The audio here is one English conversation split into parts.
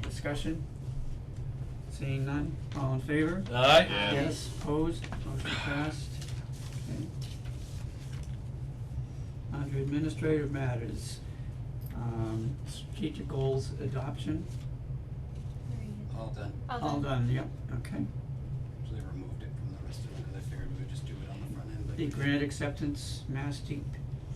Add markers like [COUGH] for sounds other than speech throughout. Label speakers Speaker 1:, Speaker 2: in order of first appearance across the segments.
Speaker 1: discussion? Seeing none, all in favor?
Speaker 2: Aye.
Speaker 3: Yeah.
Speaker 1: Yes, opposed, motion passed. Okay. Under administrative matters, um, strategic goals adoption,
Speaker 4: All done,
Speaker 1: all done, yep, okay.
Speaker 4: so they removed it from the rest of it, 'cause I figured we would just do it on the front end, but.
Speaker 1: The grant acceptance, Mass DEP,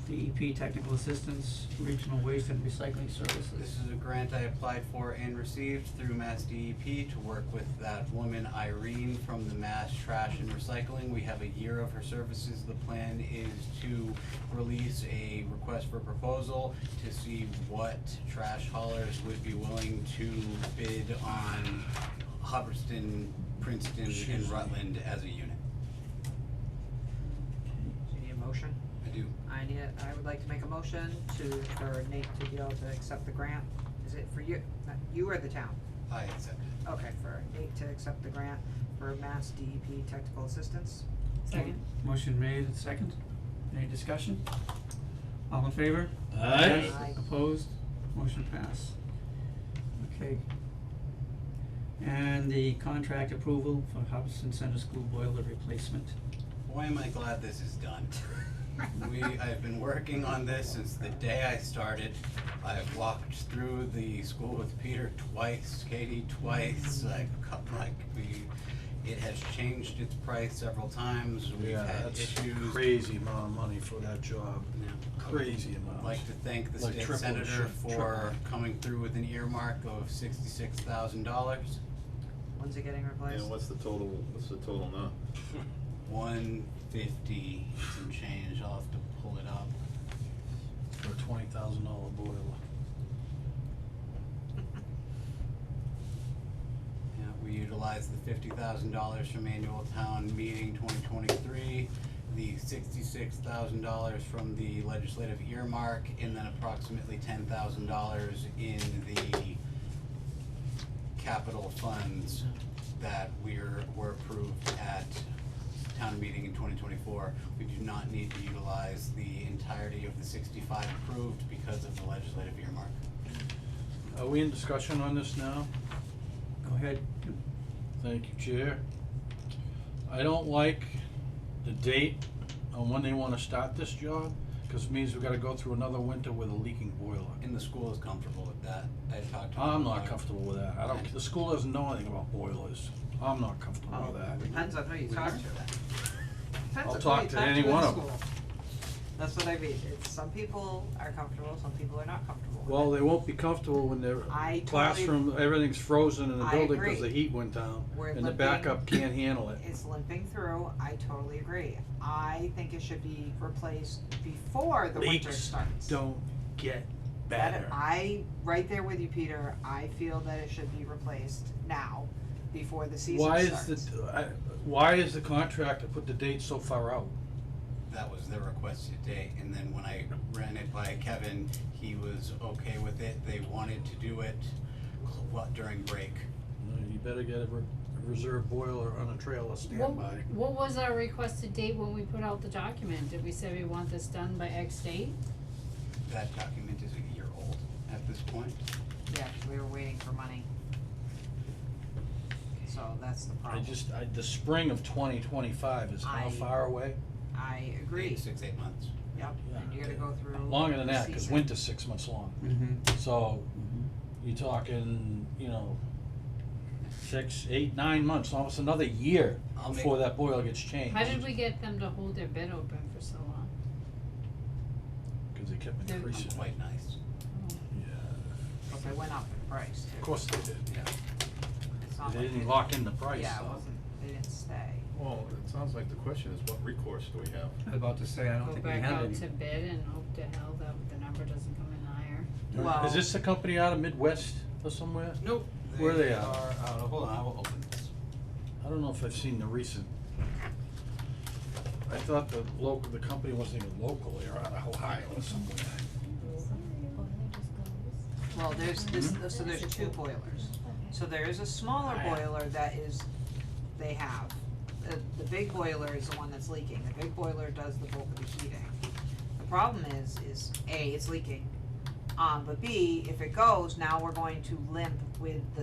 Speaker 1: DEP technical assistance, regional waste and recycling
Speaker 4: This
Speaker 1: services.
Speaker 4: is a grant I applied for and received through Mass DEP to work with that woman Irene from the Mass Trash and Recycling. We have a year of her services. The plan is to release a request for proposal to see what trash haulers would be willing to bid on Hubbardston, Princeton, and Rutland as a unit.
Speaker 5: Do you need a motion?
Speaker 4: I do.
Speaker 5: I need, a- I would like to make a motion to, for Nate to be able to accept the grant. Is it for you, not you or the town?
Speaker 4: I accept it.
Speaker 5: Okay, for Nate to accept the grant for Mass DEP technical assistance.
Speaker 1: Second. Motion made and second, any discussion? All in favor?
Speaker 2: Aye.
Speaker 1: Yes,
Speaker 5: Aye.
Speaker 1: opposed, motion pass. Okay. And the contract approval for Hubbardston Center School boiler replacement.
Speaker 4: Boy, am I glad this is
Speaker 3: [LAUGHS]
Speaker 4: done. We, I've been working on this since the day I started. I've walked through the school with Peter twice, Katie twice,
Speaker 3: Mm.
Speaker 4: I've come like, we, it has changed its price several times, we've
Speaker 3: Yeah,
Speaker 4: had
Speaker 3: that's
Speaker 4: issues.
Speaker 3: crazy amount of money for that job,
Speaker 4: Yeah.
Speaker 3: crazy amount.
Speaker 4: I'd like to thank the
Speaker 3: Like
Speaker 4: state
Speaker 3: triple,
Speaker 4: senator
Speaker 3: sure,
Speaker 4: for coming through with an earmark of sixty-six thousand dollars.
Speaker 5: When's it getting replaced?
Speaker 6: And what's the total, what's the total now?
Speaker 4: One fifty, some change, I'll have to pull it up.
Speaker 3: For a twenty thousand dollar boiler.
Speaker 4: Yeah, we utilized the fifty thousand dollars from annual town meeting twenty twenty-three, the sixty-six thousand dollars from the legislative earmark, and then approximately ten thousand dollars in the capital funds that we're, were approved at town meeting in twenty twenty-four. We do not need to utilize the entirety of the sixty-five approved because of the legislative earmark.
Speaker 3: Are we in discussion on this now?
Speaker 1: Go ahead,
Speaker 3: Thank you, Chair. I don't like the date on when they wanna start this job, cause it means we gotta go through another winter with a leaking boiler.
Speaker 4: And the school is comfortable with that. I talked to them
Speaker 3: I'm
Speaker 4: about
Speaker 3: not
Speaker 4: it.
Speaker 3: comfortable with that, I don't, the school doesn't know anything about boilers, I'm not comfortable with that.
Speaker 5: Depends on who you talk to.
Speaker 3: I'll talk to any one of 'em.
Speaker 5: them. That's what I mean, it's, some people are comfortable, some people are not comfortable with
Speaker 3: Well,
Speaker 5: it.
Speaker 3: they won't be comfortable when their
Speaker 5: I totally-
Speaker 3: classroom, everything's frozen in the
Speaker 5: I
Speaker 3: building because the
Speaker 5: agree.
Speaker 3: heat went down
Speaker 5: We're
Speaker 3: and the
Speaker 5: looking-
Speaker 3: backup can't handle it.
Speaker 5: It's limping through, I totally agree. I think it should be replaced before the winter
Speaker 3: Leaks
Speaker 5: starts.
Speaker 3: Don't get
Speaker 5: That-
Speaker 3: better.
Speaker 5: I, right there with you, Peter, I feel that it should be replaced now, before the season
Speaker 3: Why
Speaker 5: starts.
Speaker 3: is the, I, why is the contractor put the date so far out?
Speaker 4: that was their requested date, and then when I ran it by Kevin, he was okay with it, they wanted to do it cl- what, during break.
Speaker 3: You better get a re- a reserve boiler on a trailer
Speaker 7: What,
Speaker 3: standby.
Speaker 7: what was our requested date when we put out the document? Did we say we want this done by X date?
Speaker 4: That document is a year old at this point.
Speaker 5: Yeah, we were waiting for money. So that's the
Speaker 3: I
Speaker 5: problem.
Speaker 3: just, I, the spring of twenty twenty-five is how
Speaker 5: I-
Speaker 3: far away?
Speaker 5: I
Speaker 4: Eight,
Speaker 5: agree,
Speaker 4: Six, eight months.
Speaker 5: yep, and you're gonna go through.
Speaker 3: Longer than
Speaker 5: the
Speaker 3: that, cause
Speaker 5: season.
Speaker 3: winter's six months long.
Speaker 1: mm-hmm,
Speaker 3: So, you're talking, you know, six, eight, nine months, almost another year
Speaker 4: I'll make,
Speaker 3: before that boiler gets changed.
Speaker 7: How did we get them to hold their bid open for so long?
Speaker 3: Cause they kept
Speaker 7: They're-
Speaker 4: I'm
Speaker 3: increasing.
Speaker 4: quite nice.
Speaker 3: Yeah,
Speaker 5: But they went up in price
Speaker 3: of
Speaker 5: too,
Speaker 3: course they did.
Speaker 5: it's not
Speaker 3: They
Speaker 5: like
Speaker 3: didn't
Speaker 5: it-
Speaker 3: lock in the price,
Speaker 5: Yeah, it
Speaker 3: though.
Speaker 5: wasn't, they didn't stay.
Speaker 6: Well, it sounds like the question is what recourse do we have?
Speaker 1: I was about to say, I don't
Speaker 7: Go
Speaker 1: think we
Speaker 7: back
Speaker 1: had
Speaker 7: out
Speaker 1: any.
Speaker 7: to bid and hope to hell that the number doesn't come in higher.
Speaker 5: Well-
Speaker 3: Is this the company out of Midwest or somewhere?
Speaker 4: Nope.
Speaker 3: Where they at?
Speaker 4: are out of- hold on, I will open this.
Speaker 3: I don't know if I've seen the recent. I thought the local, the company wasn't even local, they were out of Ohio or somewhere.
Speaker 5: Well, there's this,
Speaker 1: Hmm?
Speaker 5: so there's two boilers. So there is a smaller boiler that is, they have. The, the big boiler is the one that's leaking. The big boiler does the bulk of the heating. The problem is, is A, it's leaking. Um, but B, if it goes, now we're going to limp with the